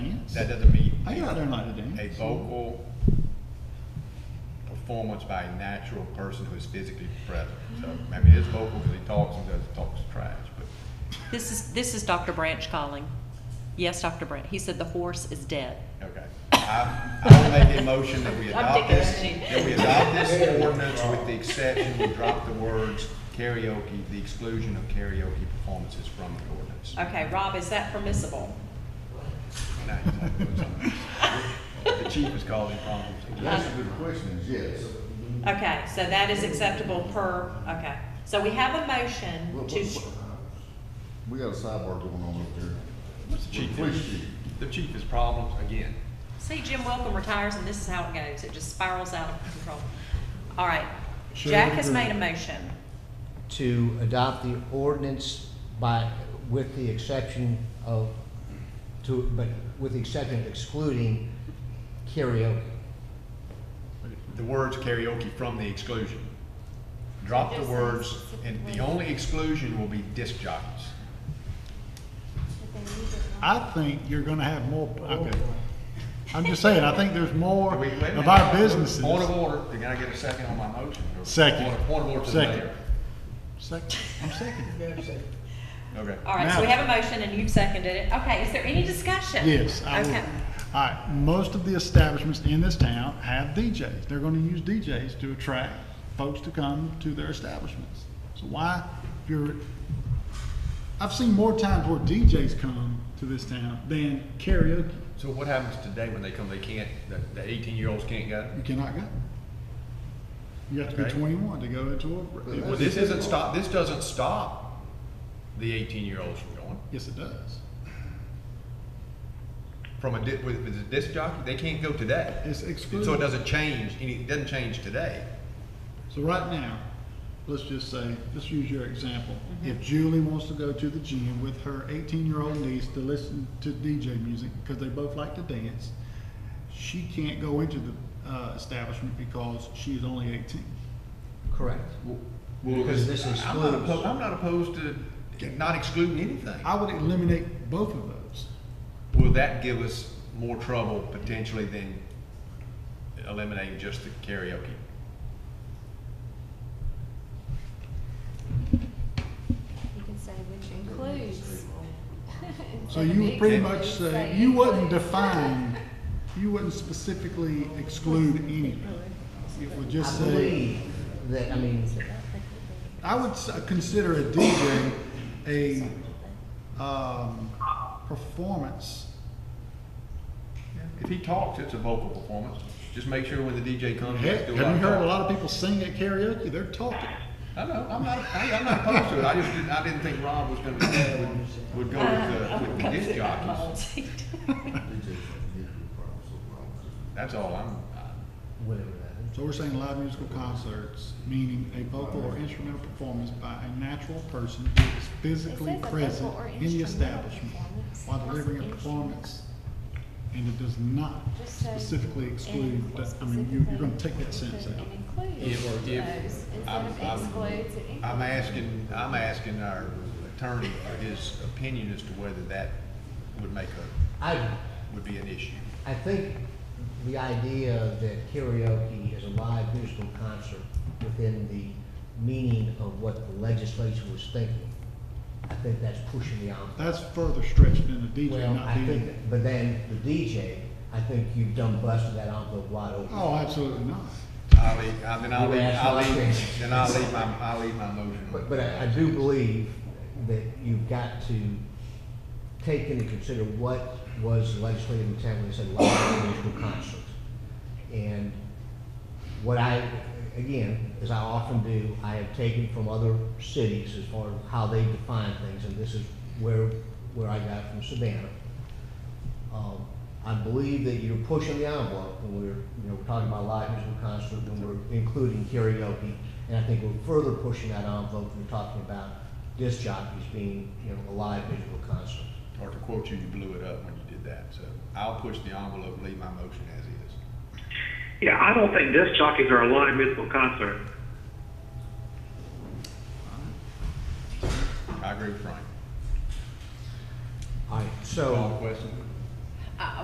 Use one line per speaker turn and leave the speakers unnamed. That doesn't mean
I go out there and light a
a
dance.
vocal performance by a natural person who is physically present. So, I mean, it's vocal because he talks and does, talks trash, but
This is, this is Dr. Branch calling. Yes, Dr. Branch. He said the horse is dead.
Okay. I, I will make a motion that we
I'm
adopt
taking
this,
energy.
that we adopt this ordinance with the exception, we drop the words karaoke, the exclusion of karaoke performances from the ordinance.
Okay, Rob, is that permissible?
Now you're talking about something. The chief is causing problems.
That's a good question, is yes.
Okay, so that is acceptable per, okay. So we have a
Well,
motion
what-
to,
what- We got a sidebar going on up there.
What's the chief doing?
Police chief.
The chief is problems again.
see Jim Welcome retires and this is how it goes. It just spirals out of control. All right,
Sure,
Jack has
agree.
made a motion.
to adopt the ordinance by, with the exception of, to, but with the exception of excluding karaoke.
The words karaoke from the exclusion. Drop the words, and the only exclusion will be disc jockeys.
I think you're gonna have more, okay. I'm just saying, I think there's more
Wait, wait a minute.
of our businesses.
Point of order, can I get a second on my motion?
Second.
Point of- Point of order to the
Second.
mayor.
Second, I'm seconding.
Okay.
All right, so we
Now-
have a motion and you've seconded it. Okay, is there any discussion?
Yes, I will.
Okay,
All right, most of the establishments in this town have DJs. They're gonna use DJs to attract folks to come to their establishments. So why, if you're, I've seen more times where DJs come to this town than karaoke.
So what happens today when they come, they can't, the, the eighteen-year-olds can't go?
You cannot go. You have to be
Okay.
twenty-one to go into a.
Well, this isn't stop, this doesn't stop the eighteen-year-olds from going.
Yes, it does.
From a, di- with, with a disc jockey, they can't go today.
It's
So it
excluded.
doesn't change, any, it doesn't change today.
So right now, let's just say, let's use your example. If Julie wants to go to the gym with her eighteen-year-old niece to listen to DJ music, because they both like to dance, she can't go into the, uh, establishment because she is only eighteen.
Correct. Because this
I'm not
excludes.
oppo- I'm not opposed to not excluding anything.
I would eliminate both of those.
Will that give us more trouble potentially than eliminating just the karaoke?
You can say which includes.
So you would pretty
Yeah.
much say, you wouldn't define, you wouldn't specifically exclude anything. It would just
I
say,
believe that, I mean,
I would s- consider a DJ a, um, performance.
If he talks, it's a vocal performance. Just make sure when the DJ comes,
Heck, have
he's doing
you heard a lot of people sing at karaoke? They're talking.
I know, I'm not, I, I'm not opposed to it, I just didn't, I didn't think Rob was gonna, would, would go with, uh, with the disc jockeys.
DJs can give you problems, so problems.
That's all, I'm, I-
whatever that is.
So we're saying live musical concerts, meaning a vocal or instrumental performance by a natural person who is physically
It says a vocal
present
or
in the
instrumental
establishment
performance.
while delivering a
Must be
performance. And it does not
Just say
specifically
and
exclude, that- I mean, you,
specifically
you're gonna take that sentence
include-
out.
And includes
If-
those,
if-
instead
I'm,
of
I'm,
excludes, it includes.
I'm asking, I'm asking our attorney for his opinion as to whether that would make a,
I,
would be an issue.
I think the idea that karaoke is a live musical concert within the meaning of what the legislature was thinking, I think that's pushing the envelope.
That's further stretched than the DJ
Well,
not
I think,
being.
but then the DJ, I think you've done busted that envelope wide open.
Oh, absolutely not.
I'll leave, I- uh, then I'll
You
leave,
asked
I'll
my
leave,
question.
then I'll leave my, I'll leave my motion.
But, but I, I do believe that you've got to take into consider what was legislative intent when they said live musical concerts. And what I, again, as I often do, I have taken from other cities as far as how they define things, and this is where, where I got it from Savannah. Um, I believe that you're pushing the envelope when we're, you know, we're talking about live musical concert, when we're including karaoke. And I think we're further pushing that envelope when we're talking about disc jockeys being, you know, a live musical concert.
Or to quote you, you blew it up when you did that, so I'll push the envelope, leave my motion as is.
Yeah, I don't think disc jockeys are a live musical concert.
I agree with Frank.
All right,
Call the
so
question.